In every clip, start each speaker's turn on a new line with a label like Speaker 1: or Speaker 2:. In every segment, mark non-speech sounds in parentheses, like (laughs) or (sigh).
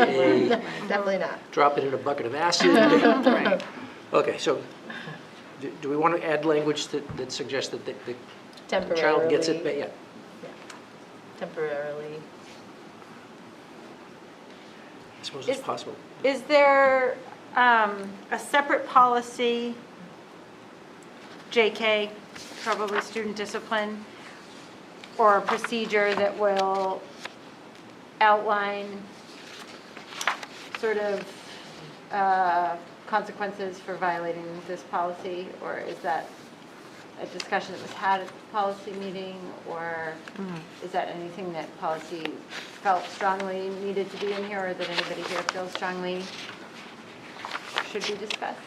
Speaker 1: (laughs)
Speaker 2: a,
Speaker 3: Definitely not.
Speaker 2: drop it in a bucket of acid.
Speaker 1: Right.
Speaker 2: Okay, so do- do we want to add language that, that suggests that the the child gets it, ba-
Speaker 3: Temporarily,
Speaker 2: yeah?
Speaker 3: temporarily.
Speaker 2: I suppose it's
Speaker 1: Is-
Speaker 2: possible.
Speaker 1: Is there um, a separate policy, JK, probably student discipline, or a procedure that will outline sort of uh, consequences for violating this policy? Or is that a discussion that was had at the policy meeting? Or is that anything that policy felt strongly needed to be in here or that anybody here feels strongly should be discussed?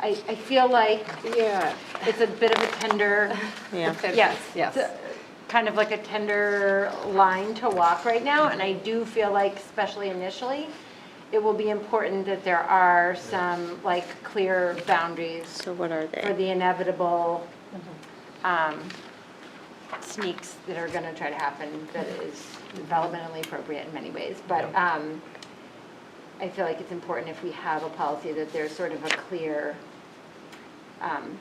Speaker 1: I, I feel like
Speaker 4: Yeah,
Speaker 1: it's a bit of a tender,
Speaker 4: yeah.
Speaker 1: yes.
Speaker 4: Yes.
Speaker 1: it's a- Kind of like a tender line to walk right now, and I do feel like, especially initially, it will be important that there are some, like, clear boundaries
Speaker 4: So what are
Speaker 1: for
Speaker 4: they?
Speaker 1: the inevitable um, sneaks that are going to try to happen that is developmentally appropriate in many ways. But um, I feel like it's important if we have a policy that there's sort of a clear um,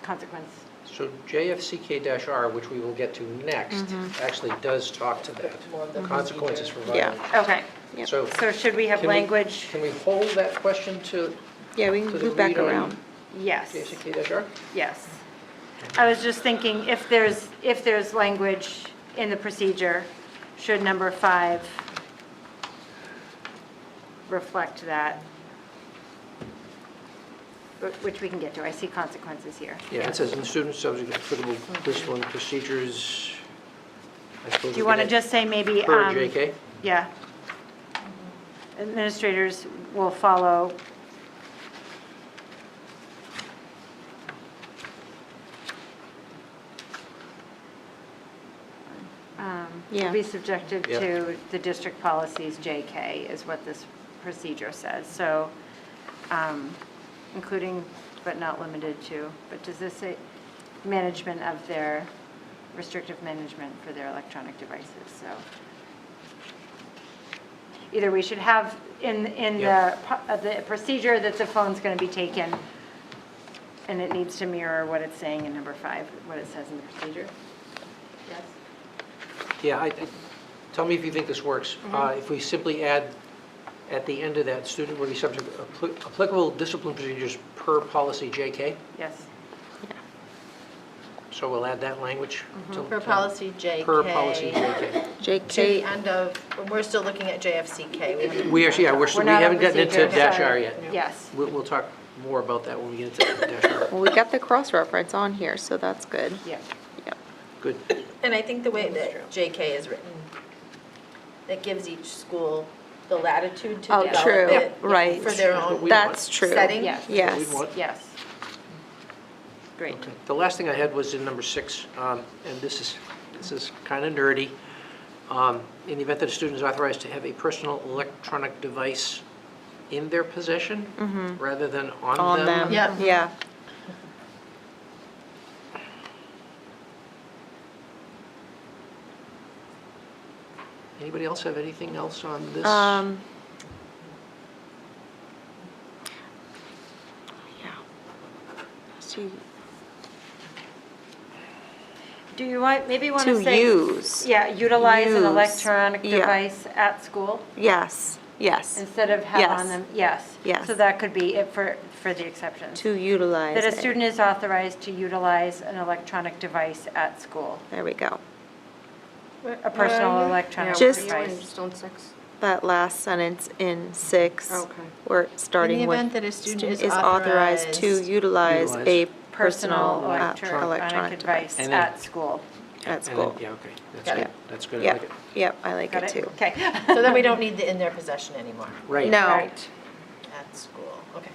Speaker 1: consequence.
Speaker 2: So JFCK-R, which we will get to next,
Speaker 1: Mm-hmm.
Speaker 2: actually does talk to that,
Speaker 3: More of the
Speaker 2: consequences for
Speaker 4: Yeah.
Speaker 2: violation.
Speaker 1: Okay,
Speaker 4: Yep.
Speaker 2: So
Speaker 1: so should we have
Speaker 2: Oh. can we-
Speaker 1: language?
Speaker 2: Can we hold that question to
Speaker 4: Yeah, we
Speaker 2: To
Speaker 4: can
Speaker 2: the
Speaker 4: move back
Speaker 2: read on-
Speaker 4: around.
Speaker 1: Yes.
Speaker 2: JFCK-R?
Speaker 1: Yes. I was just thinking, if there's, if there's language in the procedure, should number five reflect that? Wh- Which we can get to, I see consequences here.
Speaker 2: Yeah, it says, "And students subject to applicable discipline procedures." I suppose
Speaker 1: Do you
Speaker 2: we
Speaker 1: want to
Speaker 2: could
Speaker 1: just say maybe?
Speaker 2: add Per
Speaker 1: um,
Speaker 2: JK?
Speaker 1: Yeah. Administrators will follow. Um, Will be
Speaker 4: Yeah.
Speaker 1: subjected
Speaker 2: Yeah.
Speaker 1: to the district policies JK is what this procedure says. So, um, including but not limited to, but does this say management of their, restrictive management for their electronic devices? So either we should have in, in the,
Speaker 2: Yeah.
Speaker 1: pro- uh, the procedure that the phone's going to be taken, and it needs to mirror what it's saying in number five, what it says in the procedure. Yes.
Speaker 2: Yeah, I, I- tell me if you think this works. Uh, If we simply add, at the end of that, student will be subject to appli- applicable discipline procedures per policy JK,
Speaker 1: Yes.
Speaker 2: so we'll add that language. to-
Speaker 3: Per
Speaker 2: to-
Speaker 3: policy JK.
Speaker 2: Per policy JK.
Speaker 3: To the
Speaker 4: JK,
Speaker 3: end of, we're still looking at JFCK. We haven't-
Speaker 2: We actually, yeah, we're,
Speaker 1: We're
Speaker 2: we
Speaker 1: not on
Speaker 2: haven't gotten into
Speaker 1: procedure,
Speaker 2: dash
Speaker 1: sorry.
Speaker 2: R yet.
Speaker 1: Yes.
Speaker 2: We'll, we'll talk more about that when we get into dash R.
Speaker 4: well, we got the cross-reference on here, so that's good.
Speaker 1: Yeah.
Speaker 4: Yep.
Speaker 2: Good.
Speaker 3: And I think the way that JK is written, that gives each school the latitude to
Speaker 4: Oh,
Speaker 3: develop
Speaker 4: true,
Speaker 3: it
Speaker 4: right.
Speaker 3: for their own
Speaker 2: We
Speaker 4: That's
Speaker 2: want-
Speaker 4: true.
Speaker 3: setting.
Speaker 1: Yes.
Speaker 2: We
Speaker 4: Yes.
Speaker 2: want-
Speaker 1: Yes. Great.
Speaker 2: Okay. The last thing I had was in number six, um, and this is, this is kind of nerdy. Um, In the event that a student is authorized to have a personal electronic device in their possession, rather than
Speaker 4: Mm-hmm. On them.
Speaker 3: Yeah.
Speaker 4: Yeah.
Speaker 2: Anybody else have anything else on this?
Speaker 4: Um. Yeah. To,
Speaker 1: Do you want, maybe want to
Speaker 4: to
Speaker 1: say?
Speaker 4: use.
Speaker 1: Yeah, utilize an
Speaker 4: Use.
Speaker 1: electronic
Speaker 4: Yeah.
Speaker 1: device at school
Speaker 4: Yes, yes,
Speaker 1: instead of have on
Speaker 4: Yes.
Speaker 1: them, yes.
Speaker 4: Yes.
Speaker 1: So that could be it for, for the exceptions.
Speaker 4: to utilize
Speaker 1: That a
Speaker 4: it.
Speaker 1: student is authorized to utilize an electronic device at school.
Speaker 4: There we go.
Speaker 1: A personal electronic
Speaker 4: Just-
Speaker 1: device.
Speaker 5: on six.
Speaker 4: That last sentence in six.
Speaker 5: Okay.
Speaker 4: We're
Speaker 3: In the
Speaker 4: starting with.
Speaker 3: event that a student is
Speaker 4: to
Speaker 3: authorized-
Speaker 4: utilize a
Speaker 2: Utilize.
Speaker 4: personal uh,
Speaker 1: electronic device
Speaker 2: And then-
Speaker 1: at school.
Speaker 4: at
Speaker 2: And then-
Speaker 4: school.
Speaker 2: Yeah, okay, that's
Speaker 3: Got it.
Speaker 2: good, that's good, I like
Speaker 4: Yep,
Speaker 2: it.
Speaker 4: yep, I like
Speaker 1: Got
Speaker 4: it
Speaker 1: it?
Speaker 4: too.
Speaker 1: Okay.
Speaker 3: So then we don't need the in their possession anymore
Speaker 2: Right.
Speaker 4: No,
Speaker 1: Right.
Speaker 3: at school. Okay.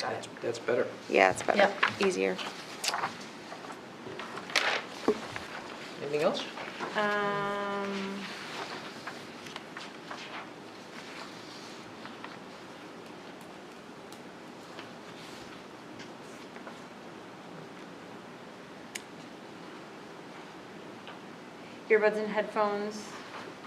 Speaker 3: Got
Speaker 2: That's-
Speaker 3: it.
Speaker 2: That's better.
Speaker 4: yeah, it's better,
Speaker 3: Yep.
Speaker 4: easier.
Speaker 2: Anything else?
Speaker 1: Um, Earbuds and headphones.